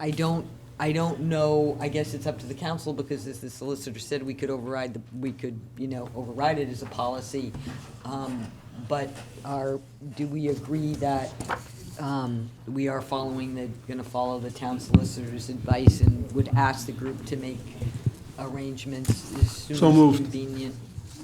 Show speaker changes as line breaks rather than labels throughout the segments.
I don't, I don't know, I guess it's up to the council, because as the solicitor said, we could override, the we could, you know, override it as a policy. Um, But are, do we agree that um, we are following the, gonna follow the town solicitor's advice and would ask the group to make arrangements as soon as
So moved.
convenient?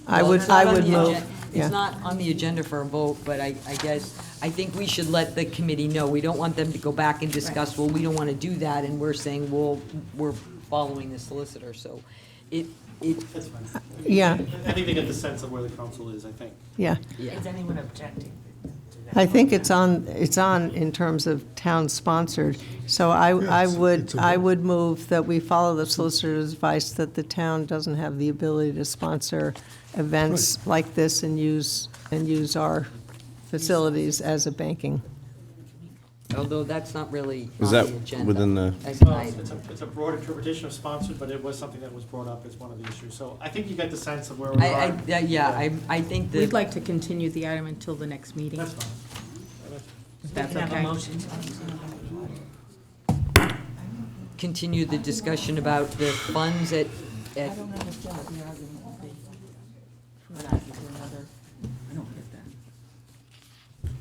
I
Well,
would-
it's not
I
on
would
the
move,
agen-
yeah.
It's not on the agenda for a vote, but I, I guess, I think we should let the committee know. We don't want them to go back and discuss, well, we don't want to do that, and we're saying, well, we're following the solicitor, so it, it,
That's fine.
Yeah,
I think they get the sense of where the council is, I think.
yeah.
yeah.
Is anyone objecting to that?
I think it's on, it's on in terms of town-sponsored. So I, I
it's- it's
would,
a-
I would move that we follow the solicitor's advice that the town doesn't have the ability to sponsor events like this and use, and use our facilities as a banking.
although that's not really on
Is
the
that
agenda.
within the-
As
Well,
I-
It's it's a, it's a broad interpretation of sponsored, but it was something that was brought up as one of the issues. So I think you get the sense of where we
I,
are.
I, yeah, I, I think that.
We'd like to continue the item until the next meeting.
That's fine.
That's
Can I have a
okay.
motion to
continue the discussion about the funds at, at,
understand what the argument would be. For an argument, another, I don't get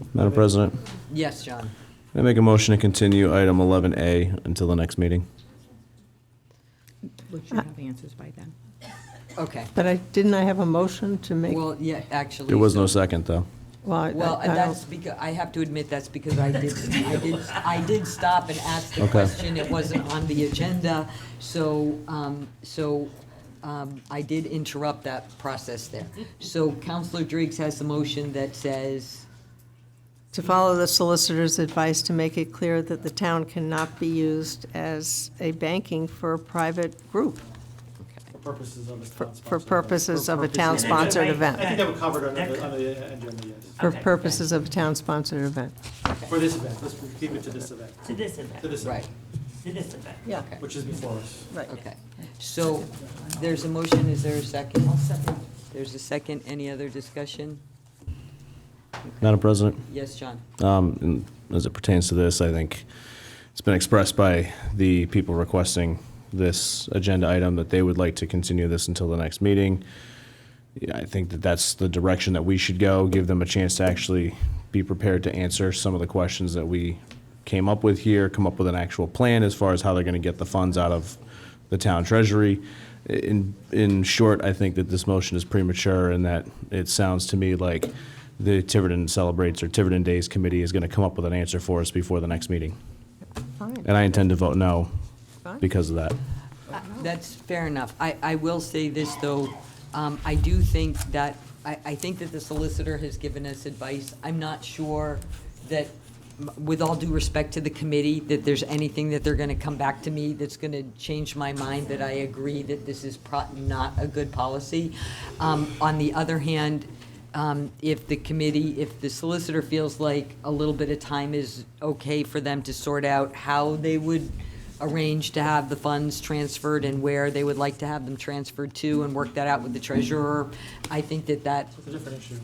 that.
Madam President,
yes, John.
I make a motion to continue item 11A until the next meeting.
We should have answers by then.
Okay.
But I, didn't I have a motion to make?
Well, yeah, actually.
There was no
so-
second, though.
Well, I-
Well,
I don't-
that's because, I have to admit, that's because I did, I did, I did stop and ask the
Okay.
question. It wasn't on the agenda, so, um, so, um, I did interrupt that process there. So Counselor Driggs has the motion that says,
To follow the solicitor's advice to make it clear that the town cannot be used as a banking for a private group
For purposes of a
for-
town-sponsored.
for purposes of a
Yeah,
town-sponsored
I
right.
think
event.
that would cover it under the, under the agenda, yes.
For
Okay.
purposes of a town-sponsored event.
For this event, let's keep it to this event,
To this
to
event,
this
right,
event,
to this event.
Yeah,
Okay.
which is before us.
right.
okay. So there's a motion, is there a second? There's a second, any other discussion?
Madam President,
Yes, John?
um, and as it pertains to this, I think it's been expressed by the people requesting this agenda item that they would like to continue this until the next meeting. Yeah, I think that that's the direction that we should go, give them a chance to actually be prepared to answer some of the questions that we came up with here, come up with an actual plan as far as how they're going to get the funds out of the town treasury. In, in short, I think that this motion is premature and that it sounds to me like the Tiverton Celebrates or Tiverton Days Committee is going to come up with an answer for us before the next meeting.
Fine.
And I intend to vote no
Fine.
because of that.
That's fair enough. I, I will say this, though, um, I do think that, I, I think that the solicitor has given us advice. I'm not sure that, with all due respect to the committee, that there's anything that they're gonna come back to me that's gonna change my mind, that I agree that this is pro, not a good policy. Um, on the other hand, um, if the committee, if the solicitor feels like a little bit of time is okay for them to sort out how they would arrange to have the funds transferred and where they would like to have them transferred to and work that out with the treasurer, I think that that,
It's a different issue.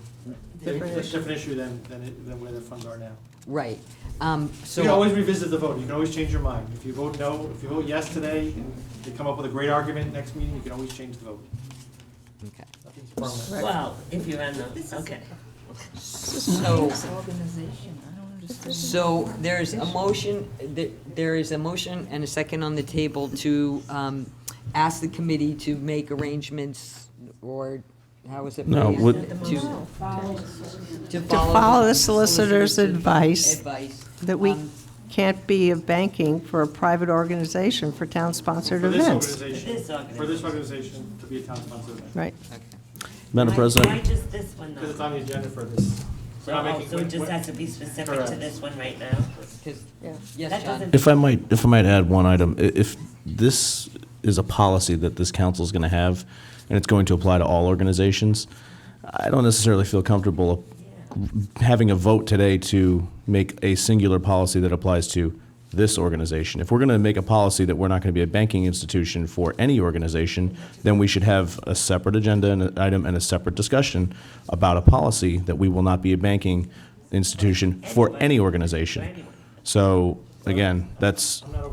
It's a different issue than, than it- than where the funds are now.
right. Um,
You can
So,
always revisit the vote, you can always change your mind. If you vote no, if you vote yes today, and you come up with a great argument next meeting, you can always change the vote.
Okay.
Nothing's permanent.
Well, if you're on the, okay.
so,
Organization, I don't understand.
so there's a motion, th- there is a motion and a second on the table to um, ask the committee to make arrangements or, how was it?
No,
phrased?
would-
To- To
follow the solicitor's advice.
Advice.
That we
Um,
can't be a banking for a private organization for town-sponsored
For this
events.
organization, for this organization to be a town sponsored event.
Right.
okay.
Madam
Why- Why
President,
just this one
Because it's
though?
on the agenda for this. We're not
So,
making-
so it just has to be specific to
Correct.
this one right now?
'Cause-
Yeah.
yes,
That
John,
doesn't-
if I might, if I might add one item, i- if this is a policy that this council is going to have, and it's going to apply to all organizations, I don't necessarily feel comfortable having a vote today to make a singular policy that applies to this organization. If we're going to make a policy that we're not going to be a banking institution for any organization, then we should have a separate agenda and an item and a separate discussion about a policy that we will not be a banking institution for any organization. So, again, that's,